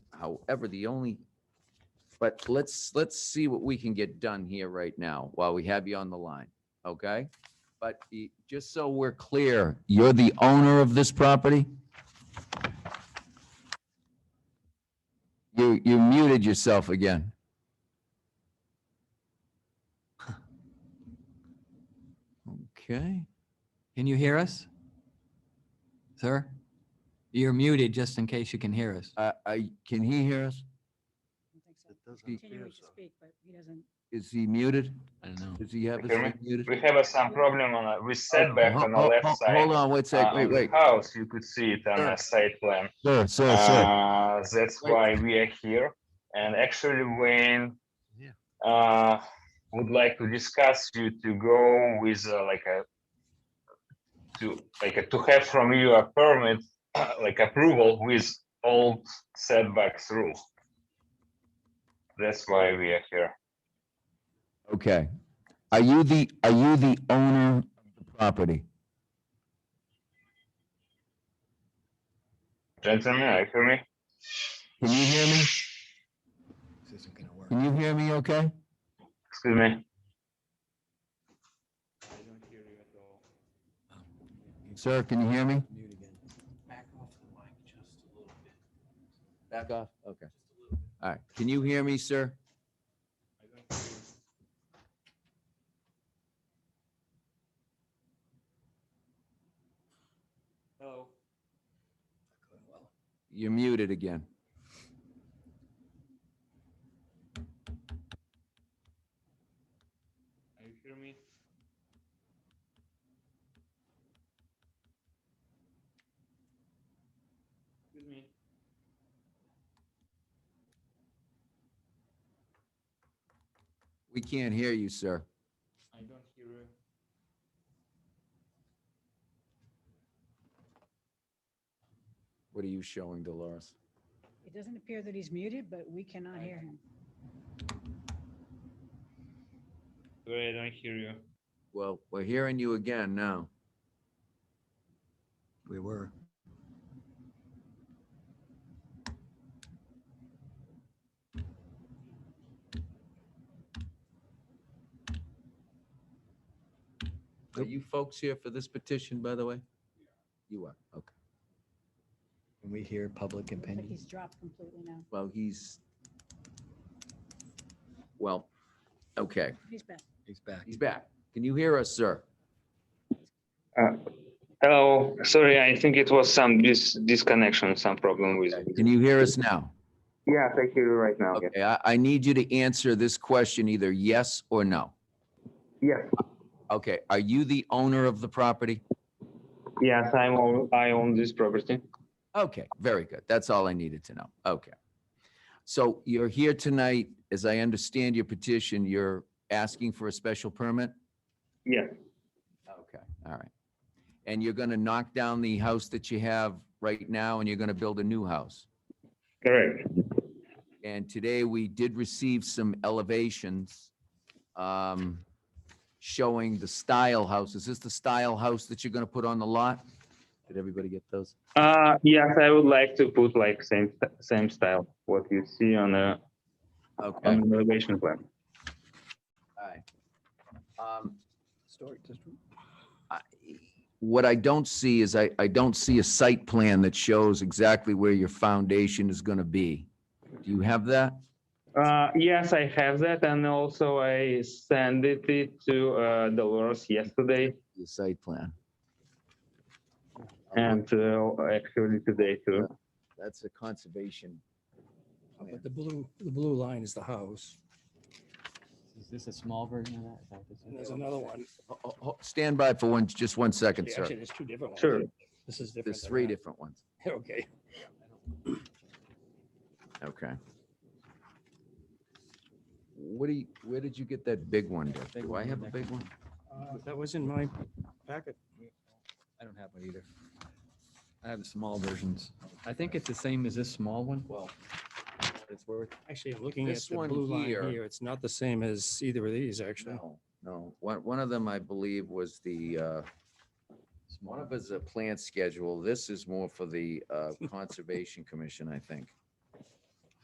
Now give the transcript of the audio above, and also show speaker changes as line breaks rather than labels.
However, the only, but let's, let's see what we can get done here right now while we have you on the line, okay? But y- just so we're clear, you're the owner of this property? You, you muted yourself again. Okay.
Can you hear us? Sir? You're muted just in case you can hear us.
Uh, I, can he hear us?
don't think so.
It doesn't
He-
appear
Continuing to
so.
speak, but he doesn't.
Is he muted?
I don't know.
Does he have his
Okay,
mic muted?
We have uh, some problem on a with setback
Ho-
on the
ho-
left
ho-
side.
Hold on, wait a
uh,
sec, wait,
on the
wait.
House, you could see it on a side plan.
Sir, sir, sir.
Uh, that's
Wait.
why we are here. And actually, Wayne
Yeah.
uh, would like to discuss you to go with uh, like a to like a, to have from you a permit like approval with old setbacks rule. That's why we are here.
Okay. Are you the, are you the owner of the property?
Gentlemen, are you hear me?
Can you hear me?
This isn't gonna work.
Can you hear me okay?
Excuse me.
Sir, can you hear me?
Mute again.
Back off. Okay. All right. Can you hear me, sir? You're muted again.
Are you hear me? Excuse me.
We can't hear you, sir.
I don't hear you.
What are you showing, Dolores?
It doesn't appear that he's muted, but we cannot hear him.
Sorry, I don't hear you.
Well, we're hearing you again now.
We were.
Are you folks here for this petition, by the way? You are, okay.
Can we hear public
Looks like
opinion?
he's dropped completely now.
Well, he's, well, okay,
He's back.
He's back.
he's back. Can you hear us, sir?
Hello, Oh, sorry, I think it was some dis- disconnection, some problem with.
Can you hear us now?
Yeah, thank you right now. yeah.
Okay, I, I need you to answer this question either yes or no.
Yes,
Okay, are you the owner of the property?
yes, I'm, own- I own this property.
Okay, very good. That's all I needed to know. Okay. So you're here tonight, as I understand your petition, you're asking for a special permit?
Yes,
Okay, all right. And you're gonna knock down the house that you have right now and you're gonna build a new house?
correct.
And today we did receive some elevations um, showing the style house. Is this the style house that you're going to put on the lot? Did everybody get those?
Uh, yes, I would like to put like same, st- same style, what you see on the,
Okay, all
on the elevation plan.
right. Um,
Historic district.
I- What I don't see is I, I don't see a site plan that shows exactly where your foundation is going to be. Do you have that?
Uh, yes, I have that, and also I sent it to uh, Dolores yesterday
The site plan? Um,
and uh, actually today too.
That's a conservation. plan.
But the blue, the blue line is the house.
Is this a small version of that? Is that what this is?
And there's another one.
Ho- ho- ho- Stand by for one, just one second, sir.
Actually, there's two different ones.
Sure.
This is different.
There's
than
three
that.
different ones.
Okay.
Okay. What do you, where did you get that big one? Dick?
Big
Do
one
I
in
have a
there.
big one?
Uh, That was in my packet.
I don't have one either.
I have the small versions. I think it's the same as this small one. Well. It's worth.
Actually, I'm looking at
This
the
one
blue line
here.
here. It's not the same as either of these, actually.
No, no. One, one of them, I believe, was the, uh, one of us a plant schedule. This is more for the, uh, Conservation Commission, I think.